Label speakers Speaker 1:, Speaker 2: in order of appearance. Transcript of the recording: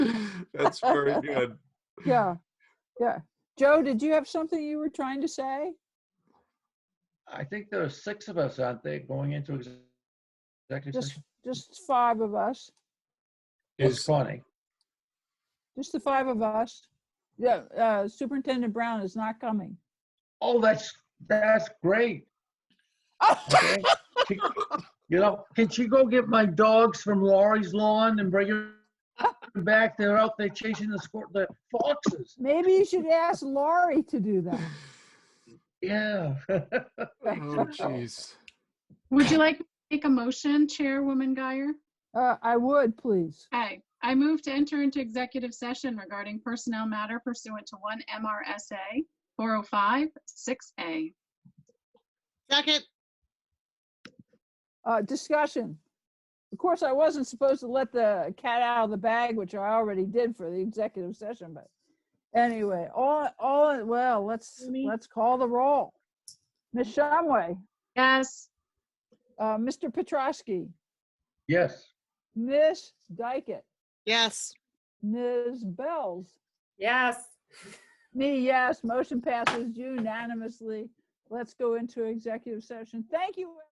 Speaker 1: That's very good.
Speaker 2: Yeah, yeah. Joe, did you have something you were trying to say?
Speaker 3: I think there are six of us, aren't there, going into ex- executive
Speaker 2: Just,
Speaker 3: session?
Speaker 2: just five of us,
Speaker 3: It's
Speaker 1: Is,
Speaker 3: Connie.
Speaker 2: just the five of us. Yeah, uh, Superintendent Brown is not coming.
Speaker 3: Oh, that's, that's great. okay? She- You know, can she go get my dogs from Laurie's lawn and bring them back? They're out there chasing the squir- the foxes.
Speaker 2: Maybe you should ask Laurie to do that.
Speaker 3: Yeah.
Speaker 1: oh, jeez.
Speaker 4: Would you like to make a motion, Chairwoman Guyer?
Speaker 2: Uh, I would, please.
Speaker 4: Okay, I move to enter into executive session regarding personnel matter pursuant to one MRSA 405 6A.
Speaker 5: Second,
Speaker 2: Uh, discussion. Of course, I wasn't supposed to let the cat out of the bag, which I already did for the executive session, but anyway, all, all, well, let's,
Speaker 4: Amy?
Speaker 2: let's call the roll. Ms. Shumway,
Speaker 4: Yes,
Speaker 2: uh, Mr. Petrosky,
Speaker 3: Yes.
Speaker 2: Ms. Dykett,
Speaker 5: yes.
Speaker 2: Ms. Bells,
Speaker 6: Yes.
Speaker 2: me, yes, motion passes unanimously. Let's go into executive session. Thank you.